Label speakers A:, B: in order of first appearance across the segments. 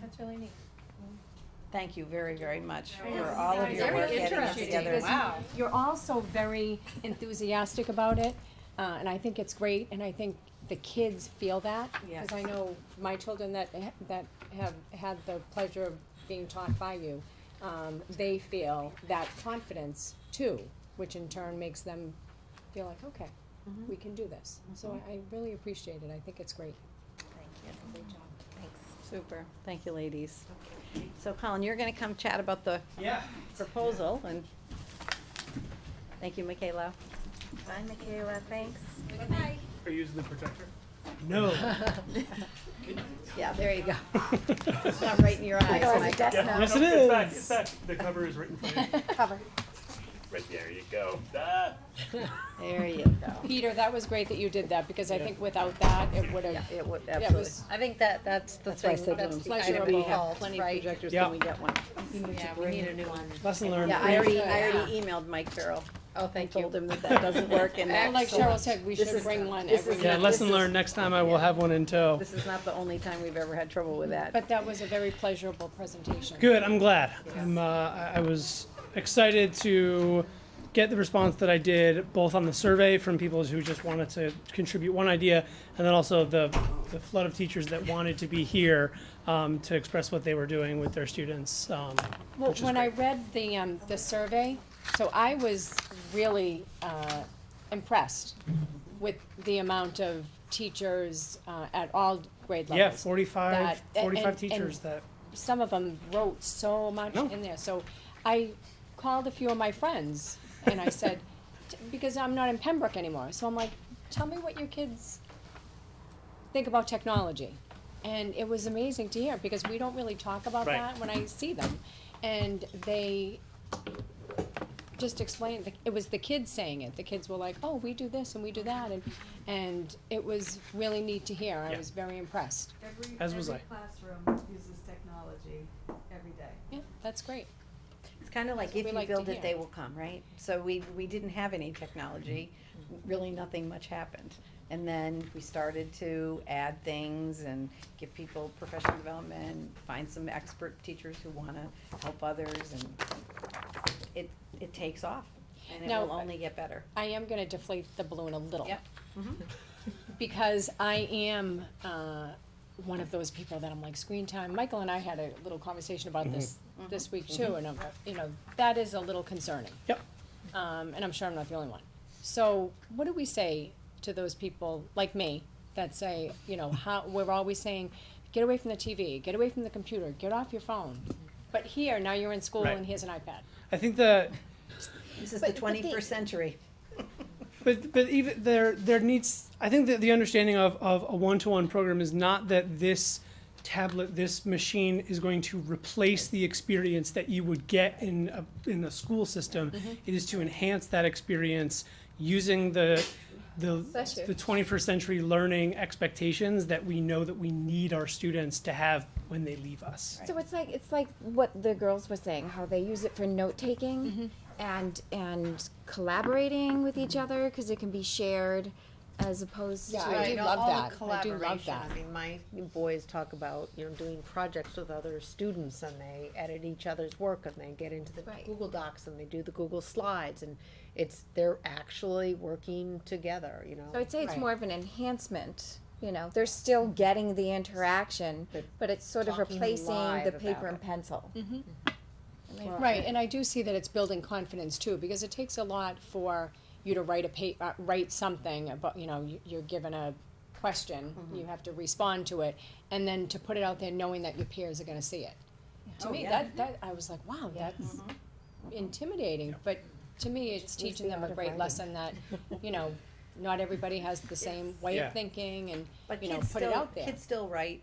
A: That's really neat.
B: Thank you very, very much
A: I
B: for
A: know.
B: all of
A: It's
B: your
A: very
B: work getting us
A: interesting
B: together.
A: because you-
B: Wow.
C: You're all so very enthusiastic about it, uh, and I think it's great, and I think the kids feel that.
B: Yes.
C: Cause I know my children that, ha- that have had the pleasure of being taught by you, um, they feel that confidence too, which in turn makes them feel like, okay,
A: Mm-hmm.
C: we can do this. So I, I really appreciate it, I think it's great.
B: Super, thank you, ladies. So Colin, you're gonna come chat about the
D: Yeah.
B: proposal and, thank you, Michaela.
A: Bye, Michaela, thanks.
D: Are you using the protector?
B: Yeah, there you go. It's not right in your eyes, Mike.
D: Yes, it is. It's back, it's back. The cover is written for you.
E: Right there you go. Ah.
B: There you go.
C: Peter, that was great that you did that, because I think without that, it would've,
B: It would,
C: yeah, it was
B: I think that, that's the thing,
C: said
B: that's the
C: pleasurable.
B: item, we have
A: Pleasurable,
B: plenty of
A: right?
B: projectors,
D: Yeah.
B: can we get one?
A: Yeah, we need a new one.
D: Lesson learned.
B: Yeah, I already, I
C: Yeah.
B: already emailed Mike Farrell,
A: Oh,
B: I
A: thank you.
B: told him that that doesn't work and
C: Well,
B: that.
C: like Cheryl said, we
B: This
C: should
B: is-
C: bring one
B: this
C: every
B: is-
D: Yeah,
C: year.
B: let-
D: lesson learned. Next time I will have one in tow.
B: This is not the only time we've ever had trouble with that.
C: But that was a very pleasurable presentation.
D: Good. I'm glad. I'm, uh, I I was excited to get the response that I did, both on the survey from people who just wanted to contribute one idea, and then also the, the flood of teachers that wanted to be here um, to express what they were doing with their students. Um,
C: Well,
D: which is
C: when I
D: great.
C: read the, um, the survey, so I was really, uh, impressed with the amount of teachers, uh, at all grade
D: yeah,
C: levels.
D: 45,
C: That- and-
D: 45
C: and-
D: teachers that.
C: Some of them wrote so much
D: No.
C: in there, so I called a few of my friends and I said, t- because I'm not in Pembroke anymore, so I'm like, tell me what your kids think about technology. And it was amazing to hear, because we don't really talk about
D: Right.
C: that when I see them. And they just explained, the- it was the kids saying it, the kids were like, oh, we do this and we do that, and, and it was really neat to hear, I
D: Yeah.
C: was very impressed.
F: Every,
D: As was
F: every
D: I.
F: classroom uses technology every day.
C: Yeah, that's great.
B: It's kind of like
C: That's what
B: if
C: we
B: you
C: like to
B: build it,
C: hear.
B: they will come, right? So we, we didn't have any technology, really nothing much happened. And then we started to add things and give people professional development, find some expert teachers who wanna help others and it, it takes off and it
C: Now-
B: will only get better.
C: I am gonna deflate the balloon a little.
B: Yep. Mhm.
C: Because I am, uh, one of those people that I'm like, screen time, Michael and I had a little conversation about this, this week too, and I'm, you know, that is a little concerning.
D: Yep.
C: Um, and I'm sure I'm not the only one. So what do we say to those people like me that say, you know, how, we're always saying, get away from the TV, get away from the computer, get off your phone. But here, now you're in school
D: Right.
C: and here's an iPad.
D: I think that
B: This is the twenty-first century.
D: But but even there there needs I think that the understanding of, of a one to one program is not that this tablet this machine is going to replace the experience that you would get in a in a school system. It is to enhance that experience using the the
C: Bless you.
D: the 21st century learning expectations that we know that we need our students to have when they leave us.
G: So it's like it's like what the girls were saying, how they use it for note taking and and collaborating with each other because it can be shared, as opposed
C: Yeah,
G: to
C: I do
A: Right, all-
C: love
A: all the
C: that. I do love
A: collaboration.
C: that.
A: I mean, my boys talk about, you know, doing projects with other students and they edit each other's work and they get into the
G: Right.
A: Google Docs and they do the Google Slides and it's, they're actually working together, you know?
G: So I'd say it's
C: Right.
G: more of an enhancement. You know, they're still getting the interaction,
A: But
G: but it's sort of
A: talking
G: replacing
A: live
G: the
A: about
G: paper and
A: it.
G: pencil. Right.
C: Right, and I do see that it's building confidence too, because it takes a lot for you to write a pa- uh, write something about, you know, you- you're given a question,
B: Mm-hmm.
C: you have to respond to it, and then to put it out there knowing that your peers are gonna see it. To
B: Oh,
C: me,
B: yeah. Mm-hmm.
C: that, that, I was like, wow, that's intimidating, but to me, it's teaching
A: the
C: them a
A: art of
C: great
A: writing.
C: lesson that, you know, not everybody has the same way
D: Yeah.
C: of thinking and,
B: But
C: you know,
B: kids
C: put it
B: still-
C: out there. Mm-hmm.
B: Kids still write,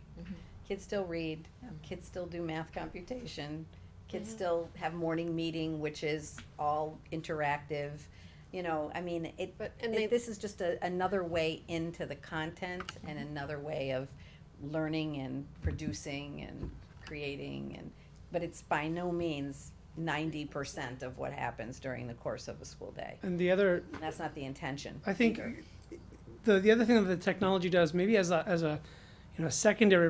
B: kids still read, kids still do math computation, kids still have morning meeting, which is all interactive. You know, I mean, it,
A: But- and they-
B: it, this is just a, another way into the content and
C: Mm-hmm.
B: another way of learning and producing and creating and, but it's by no means ninety percent of what happens during the course of a school day.
D: And the other
B: That's not the intention.
D: I think
B: either.
D: the the other thing that the technology does maybe as a as a you know secondary